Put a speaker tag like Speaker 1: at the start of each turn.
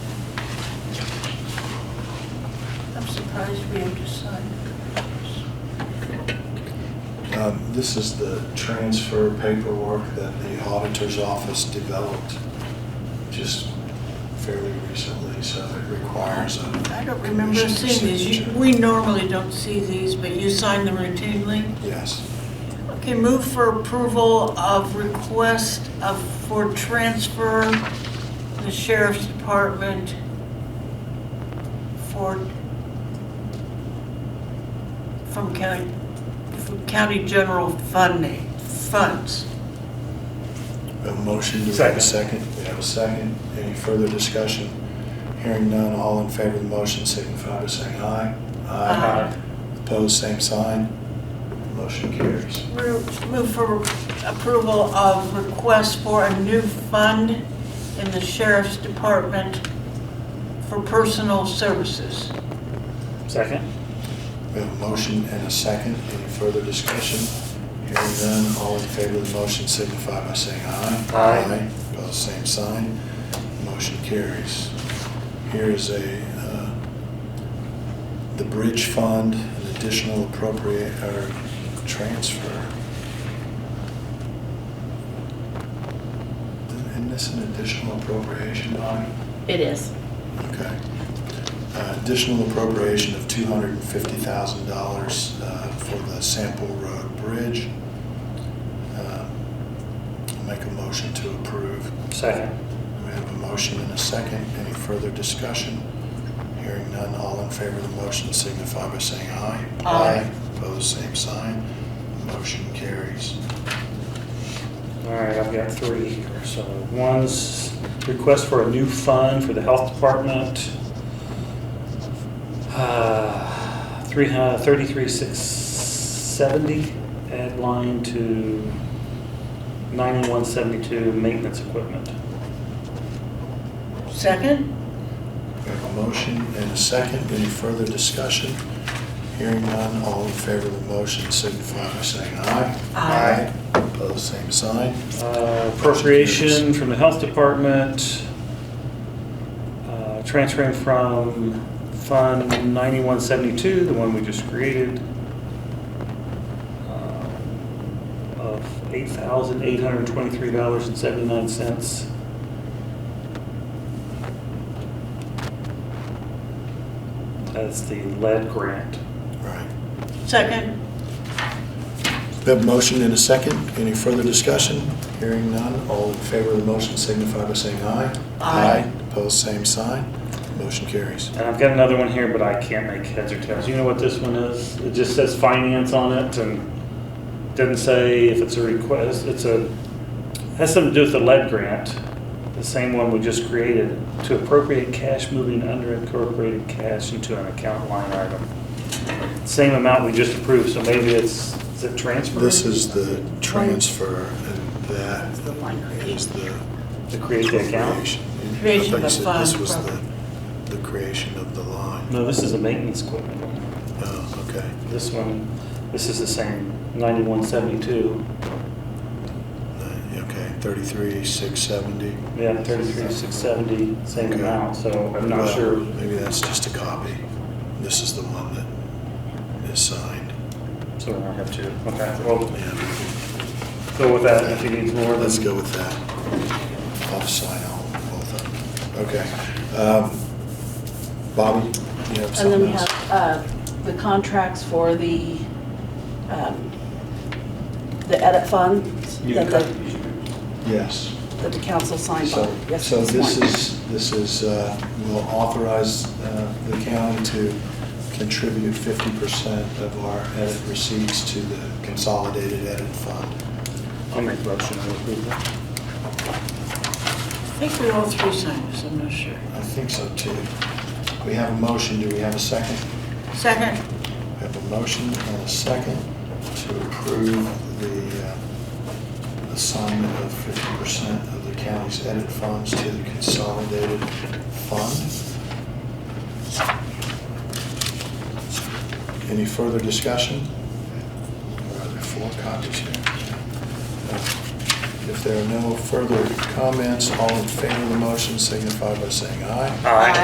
Speaker 1: I'm surprised we have to sign it.
Speaker 2: Um, This is the transfer paperwork that the auditor's office developed just fairly recently, so it requires a.
Speaker 1: I don't remember
Speaker 2: commissioner's
Speaker 1: seeing these. You-
Speaker 2: signature.
Speaker 1: We normally don't see these, but you sign them routinely.
Speaker 2: Yes.
Speaker 1: Okay, move for approval of request of, for transfer, the sheriff's department for, from county, from county general funding, funds.
Speaker 2: A motion, do we have a
Speaker 3: Second.
Speaker 2: second? We have a second. Any further discussion? Hearing none, all in favor of the motion signify by saying aye.
Speaker 3: Uh,
Speaker 1: Aye.
Speaker 2: Opposed, same sign. Motion carries.
Speaker 1: Move for approval of request for a new fund in the sheriff's department for personal services.
Speaker 3: Second?
Speaker 2: We have a motion and a second. Any further discussion? Hearing none, all in favor of the motion signify by saying aye.
Speaker 3: Aye.
Speaker 2: Opposed, same sign. Motion carries. Here is a, uh, the Bridge Fund, an additional appropriate, or transfer. Isn't this an additional appropriation, Bonnie?
Speaker 4: It is.
Speaker 2: Okay. Uh, Additional appropriation of $250,000 uh, for the Sample Road Bridge. Uh, Make a motion to approve.
Speaker 3: Second.
Speaker 2: We have a motion and a second. Any further discussion? Hearing none, all in favor of the motion signify by saying aye.
Speaker 1: Aye.
Speaker 2: Opposed, same sign. Motion carries.
Speaker 3: All right, I've got three here. So one's request for a new fund for the health department. Uh, Three hundred thirty-three six seventy. add line to 9172, maintenance equipment.
Speaker 1: Second?
Speaker 2: We have a motion and a second. Any further discussion? Hearing none, all in favor of the motion signify by saying aye.
Speaker 1: Aye.
Speaker 2: Opposed, same sign.
Speaker 3: Uh, Appropriation from the health department, uh, transferring from Fund 9172, the one we just created, um, of $8,823.79. That's the lead grant.
Speaker 2: Right.
Speaker 1: Second?
Speaker 2: We have a motion and a second. Any further discussion? Hearing none, all in favor of the motion signify by saying aye.
Speaker 1: Aye.
Speaker 2: Opposed, same sign. Motion carries.
Speaker 3: And I've got another one here, but I can't make heads or tails. You know what this one is? It just says finance on it and doesn't say if it's a request. It's a, has something to do with the lead grant, the same one we just created, to appropriate cash moving under incorporated cash into an account line item. Same amount we just approved, so maybe it's, is it transfer?
Speaker 2: This is the transfer and that
Speaker 4: It's the line created.
Speaker 2: is the
Speaker 3: To create the account?
Speaker 2: creation. I
Speaker 1: Creation of
Speaker 2: thought you said This
Speaker 1: fund.
Speaker 2: was the, the creation of the line.
Speaker 3: No, this is a maintenance equipment one.
Speaker 2: Oh, okay.
Speaker 3: This one, this is the same, 9172.
Speaker 2: Uh, Okay, thirty-three, six seventy.
Speaker 3: Yeah, thirty-three, six seventy, same
Speaker 2: Okay.
Speaker 3: amount, so I'm not sure.
Speaker 2: Maybe that's just a copy. This is the one that is signed.
Speaker 3: So we're gonna have to, okay, well,
Speaker 2: Yeah.
Speaker 3: go with that if you need more.
Speaker 2: Let's
Speaker 3: then-
Speaker 2: go with that. I'll sign all, both of them. Okay. Um, Bobby, you have
Speaker 4: And then we
Speaker 2: something else?
Speaker 4: have uh, the contracts for the, um, the edit fund that the,
Speaker 2: Yes.
Speaker 4: that the council signed
Speaker 2: So,
Speaker 4: on yes,
Speaker 2: so this
Speaker 4: morning.
Speaker 2: is, this is, uh, will authorize uh, the county to contribute 50% of our edit receipts to the consolidated edit fund.
Speaker 3: I'll make a motion to approve that.
Speaker 1: I think we all three signed this, I'm not sure.
Speaker 2: I think so too. We have a motion, do we have a second?
Speaker 1: Second?
Speaker 2: We have a motion and a second to approve the uh, assignment of 50% of the county's edit funds to the consolidated fund. Any further discussion? There are there four copies here. If there are no further comments, all in favor of the motion signify by saying aye.
Speaker 3: Aye.